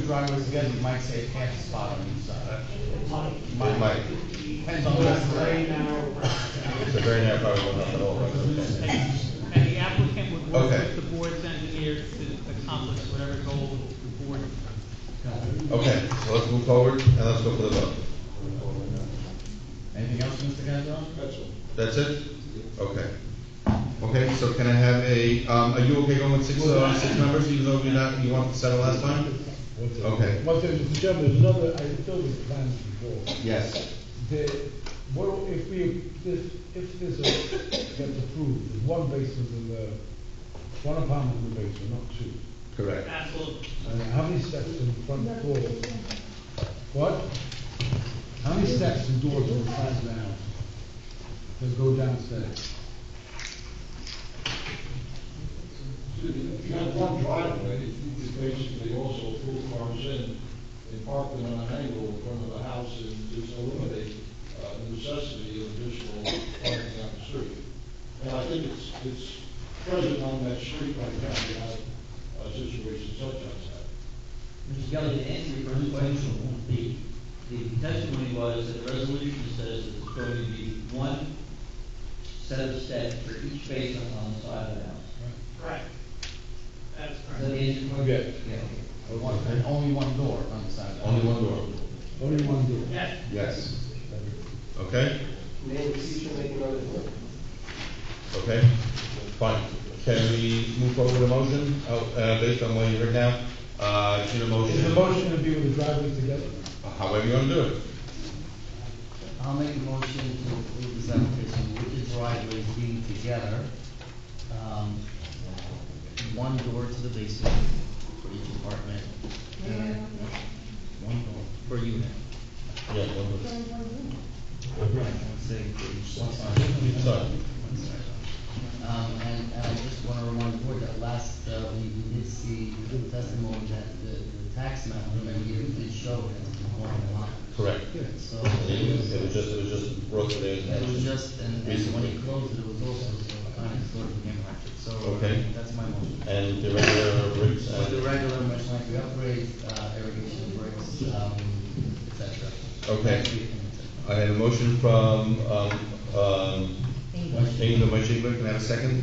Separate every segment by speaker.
Speaker 1: driveway is good, you might say half a spot on each side.
Speaker 2: It might,
Speaker 1: Depends on what's there.
Speaker 2: the very narrow probably won't help at all, right?
Speaker 3: And the applicant would work
Speaker 2: Okay.
Speaker 3: with the board's engineer to accomplish whatever goal the board.
Speaker 2: Okay, so let's move forward, and let's go for the vote.
Speaker 1: Anything else, Mr. Gonzalez?
Speaker 2: That's it? Okay. Okay, so can I have a, um, are you okay going with six, uh, six members, even though you're not, you wanted to settle last time? Okay.
Speaker 4: But there's, Mr. Chairman, there's another, I thought we planned before.
Speaker 2: Yes.
Speaker 4: The, what, if we, this, if this uh, gets approved, there's one basement in the, one apartment in the basement, not two.
Speaker 2: Correct.
Speaker 3: Absolutely.
Speaker 4: And how many steps in front door? What? How many steps and doors in front of the house? That go downstairs?
Speaker 5: You have one driveway, you could basically also pull cars in and park them on an angle in front of the house and just eliminate uh, the necessity of additional parking on the street. And I think it's, it's present on that street right now, you have a situation such as that.
Speaker 6: Mr. Kelly, to answer your first question, the, the testimony was that the resolution says that it's going to be one set of steps for each basement on the side of the house.
Speaker 3: Correct. That is
Speaker 6: Does that answer your question?
Speaker 4: Yeah.
Speaker 6: Yeah.
Speaker 1: One- And only one door on the side. of the house.
Speaker 2: Only one door.
Speaker 4: Only one door?
Speaker 3: Yes.
Speaker 2: Yes. Okay,
Speaker 7: Maybe you should make another one.
Speaker 2: okay, fine. Can we move forward with a motion, Oh, uh, based on what you heard now? Uh, in a
Speaker 4: Is the
Speaker 2: motion,
Speaker 4: motion to be with the driveway together?
Speaker 2: however you want to do it.
Speaker 8: I'll make a motion to approve this application with the driveways being together. um, One door to the basement for each apartment. and One door per unit.
Speaker 2: Yeah, one door.
Speaker 8: Right. One side for each side.
Speaker 2: Sorry.
Speaker 8: Um, and, and I just want to remind the board that last, uh, we we did see the testimony that the, the tax map, remember, you did show that it's one lot.
Speaker 2: Correct.
Speaker 8: So.
Speaker 2: It was it was just, it was just brought to their
Speaker 8: It was
Speaker 2: attention.
Speaker 8: just, and and when it closed, it was also kind of sort of game ratchet, so.
Speaker 2: Okay.
Speaker 8: That's my motion.
Speaker 2: And the regular bricks
Speaker 8: With the
Speaker 2: and,
Speaker 8: regular much like the upgrades, uh, irrigation bricks, um, et cetera.
Speaker 2: Okay. I had a motion from, um, um, Ingram, my chamber, can I have a second?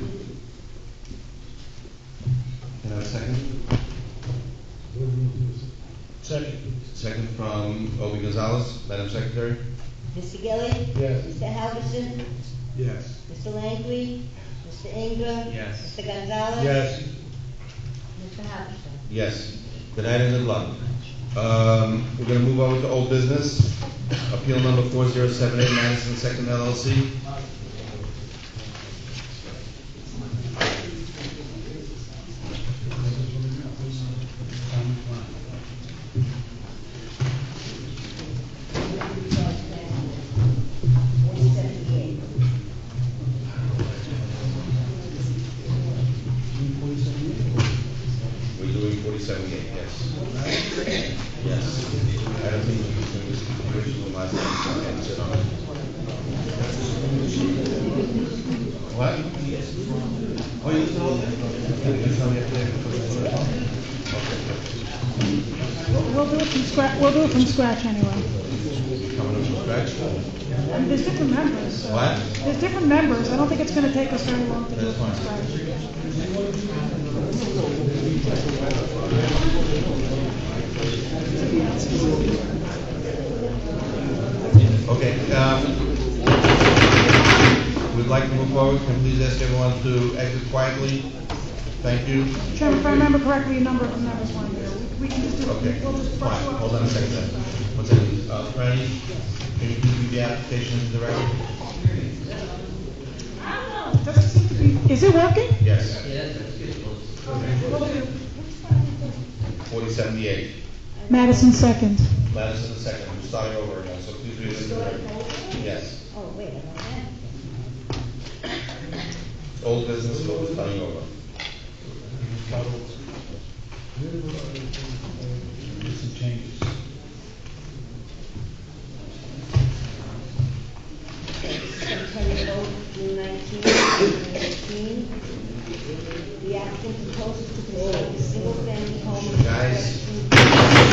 Speaker 2: Can I have a second?
Speaker 4: Second.
Speaker 2: Second from Obi Gonzalez, Madam Secretary?
Speaker 9: Mr. Gilli?
Speaker 4: Yes.
Speaker 9: Mr. Halverson?
Speaker 4: Yes.
Speaker 9: Mr. Langley? Mr. Ingram?
Speaker 8: Yes.
Speaker 9: Mr. Gonzalez?
Speaker 4: Yes.
Speaker 9: Mr. Halverson?
Speaker 2: Yes, the night and the block. Um, we're gonna move over to old business, appeal number four zero seven eight Madison Second LLC.
Speaker 9: One seventy-eight.
Speaker 2: We're doing forty-seven eight, yes. Yes. I don't think we can do this original last time, so I answered on it. What? Oh, you still? You tell me if
Speaker 10: We'll do it from scratch, we'll do it from scratch anyway.
Speaker 2: they're coming up from scratch.
Speaker 10: And there's different members. so-
Speaker 2: What?
Speaker 10: There's different members, I don't think it's gonna take us very long to do it from
Speaker 2: That's fine.
Speaker 10: scratch.
Speaker 2: Okay, um, we'd like to move forward, can please ask everyone to exit quietly? Thank you.
Speaker 10: Chairman, if I remember correctly, a number of the members weren't here. We- We can just do,
Speaker 2: Okay,
Speaker 10: we'll just.
Speaker 2: fine, hold on a second then. One second, uh, Franny, can you please read the application into the record?
Speaker 10: Doesn't seem to be, is it working?
Speaker 2: Yes,
Speaker 6: Yeah, that's, that's good. Well, it's-
Speaker 2: forty seventy-eight,
Speaker 10: Madison second.
Speaker 2: Madison the second, we're starting over again, so please read it into the record. Yes,
Speaker 9: Oh, wait, I don't have it.
Speaker 2: old business, so we're starting over.
Speaker 4: uh, Some changes.
Speaker 9: September 8th, June 19, 2018. The applicant proposes to construct a single-family home.
Speaker 2: Guys,